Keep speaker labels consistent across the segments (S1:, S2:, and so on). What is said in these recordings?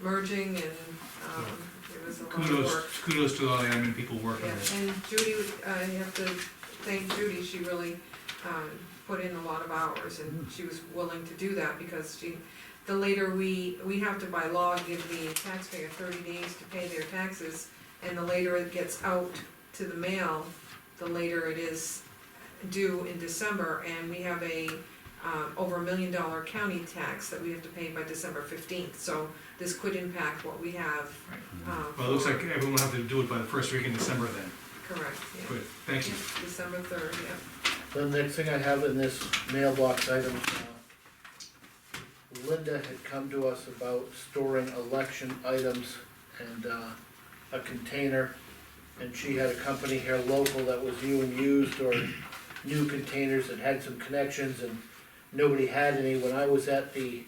S1: merging and, um, it was a lot of
S2: Kudos,
S1: work.
S2: kudos to all the admin people working
S1: Yeah,
S2: on it.
S1: and Judy, uh, I have to thank Judy, she really, um, put in a lot of hours and she was willing to do that because she, the later we, we have to by law give the taxpayer thirty days to pay their taxes and the later it gets out to the mail, the later it is due in December and we have a, um, over a million dollar county tax that we have to pay by December fifteenth, so this could impact what we have.
S2: Right.
S1: um,
S2: Well, it looks
S1: for-
S2: like everyone will have to do it by the first week in December then.
S1: Correct, yeah.
S2: Good, thank you.
S1: December third, yeah.
S3: The next thing I have in this mailbox item, uh, Linda had come to us about storing election items and, uh, a container. And she had a company here local that was new and used or new containers that had some connections and nobody had any. When I was at the,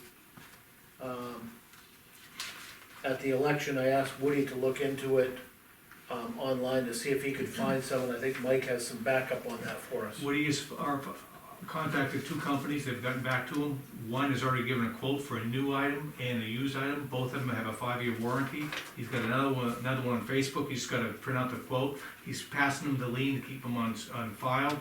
S3: um, at the election, I asked Woody to look into it, um, online to see if he could find some, and I think Mike has some backup on that for us.
S2: Woody has our- contacted two companies, they've gotten back to him. One has already given a quote for a new item and a used item, both of them have a five-year warranty. He's got another one, another one on Facebook, he's gotta print out the quote. He's passing them to Lean to keep them on, on file.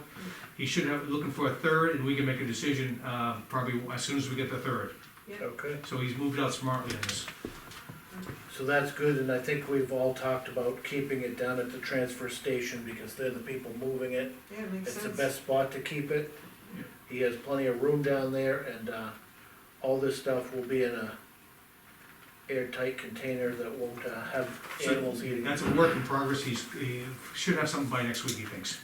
S2: He should have, looking for a third, and we can make a decision, uh, probably as soon as we get the third.
S3: Okay.
S2: So he's moved out smartly on this.
S3: So that's good, and I think we've all talked about keeping it down at the transfer station, because they're the people moving it.
S1: Yeah, it makes
S3: It's the
S1: sense.
S3: best spot to keep it.
S2: Yeah.
S3: He has plenty of room down there, and, uh, all this stuff will be in a airtight container that won't, uh, have
S2: So
S3: animals eating. it.
S2: That's a work in progress, he's, he should have something by next week, he thinks.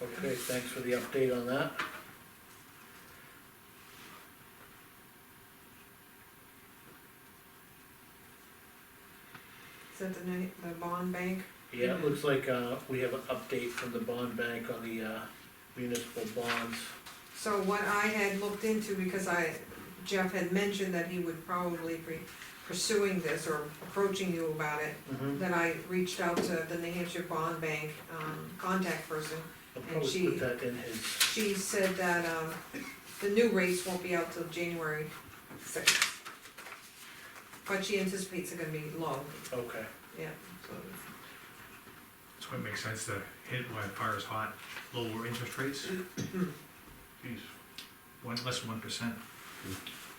S3: Okay, thanks for the update on that.
S1: Is that the night, the bond bank?
S3: Yeah, it looks like, uh, we have an update from the bond bank on the, uh, municipal bonds.
S1: So what I had looked into, because I, Jeff had mentioned that he would probably be pursuing this or approaching you about it,
S3: Mm-hmm.
S1: that I reached out to the New Hampshire Bond Bank, um, contact person.
S3: I'll
S1: And
S3: probably
S1: she-
S3: put that in his,
S1: She said that, um, the new rates won't be out till January sixth. But she anticipates they're gonna be low,
S3: okay.
S1: yeah, so,
S2: So it makes sense to hit while the fire is hot, lower interest rates. Geez, One, less than one percent.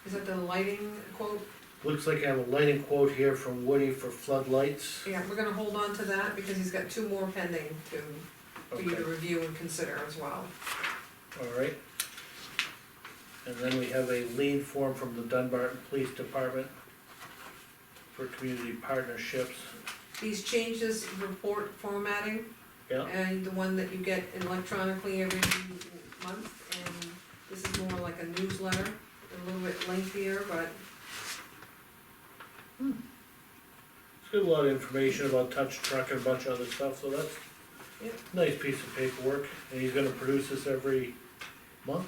S1: is that the lighting quote?
S3: Looks like I have a lighting quote here from Woody for floodlights.
S1: Yeah, we're gonna hold on to that because he's got two more pending to, for you
S3: Okay,
S1: to review and consider as well.
S3: all right. And then we have a lead form from the Dunbarton Police Department for community partnerships.
S1: These changes, report formatting.
S3: Yeah.
S1: And the one that you get electronically every month, and this is more like a newsletter, a little bit lengthier, but
S3: It's got a lot of information about touch truck and a bunch of other stuff, so that's
S1: Yeah.
S3: nice piece of paperwork. And he's gonna produce this every month?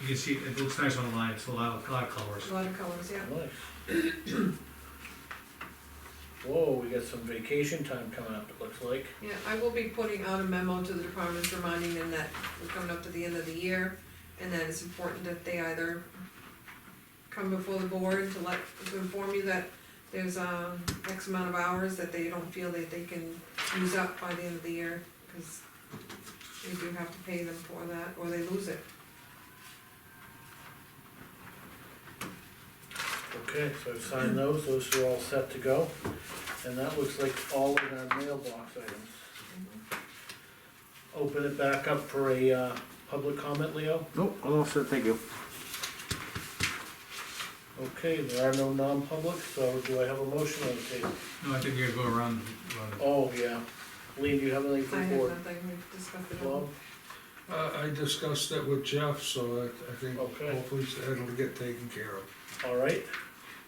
S2: You can see, it looks nice online, it's a lot, of- a lot of colors.
S1: a lot of colors, yeah.
S3: Nice. Whoa, we got some vacation time coming up, it looks like.
S1: Yeah, I will be putting out a memo to the departments reminding them that we're coming up to the end of the year, and that it's important that they either come before the board to let, to inform you that there's, um, X amount of hours that they don't feel that they can use up by the end of the year, cause we do have to pay them for that, or they lose it.
S3: Okay, so I've signed those, those are all set to go, and that looks like all of our mailbox items. Open it back up for a, uh, public comment, Leo?
S4: Nope, I'm all set, thank you.
S3: Okay, there are no non-public, so do I have a motion on the table?
S2: No, I think we gotta go around, around
S3: Oh, yeah, Lee, do you have anything
S1: I
S3: for the
S1: have
S3: board?
S1: nothing, we've discussed it all.
S3: Bob?
S5: Uh, I discussed that with Jeff, so I, I think
S3: Okay.
S5: hopefully that'll get taken care of.
S3: All right,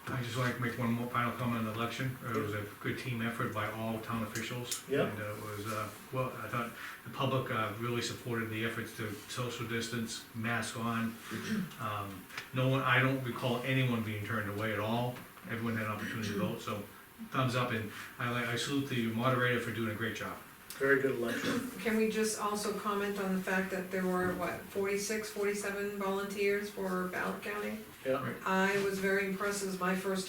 S2: the- I just like to make one more final comment on the election. Uh, It was a good team effort by all town officials.
S3: Yeah.
S2: And uh, it was, uh, well, I thought the public uh, really supported the efforts to social distance, mask on. Um, No one, I don't recall anyone being turned away at all. Everyone had an opportunity to vote, so thumbs up. And I like, I salute the moderator for doing a great job.
S3: very good election,
S1: Can we just also comment on the fact that there were, what, 46, 47 volunteers for ballot counting?
S3: yeah.
S1: I was very impressed, it was my first time